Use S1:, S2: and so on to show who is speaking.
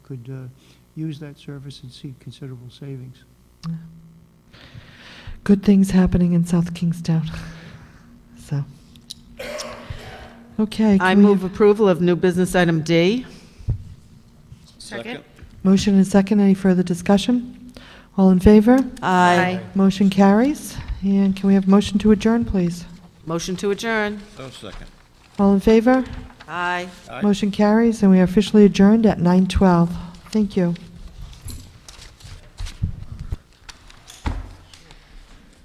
S1: could uh, use that service and see considerable savings.
S2: good things happening in South Kingstown. So, okay.
S3: I
S2: can we
S3: move
S2: have-
S3: approval of new business item D.
S4: Second.
S2: Motion and second, any further discussion? All in favor?
S3: Aye.
S2: Motion carries. And can we have motion to adjourn, please?
S3: Motion to adjourn.
S4: Oh, second.
S2: All in favor?
S3: Aye.
S4: Aye.
S2: Motion carries, and we are officially adjourned at 9:12. Thank you.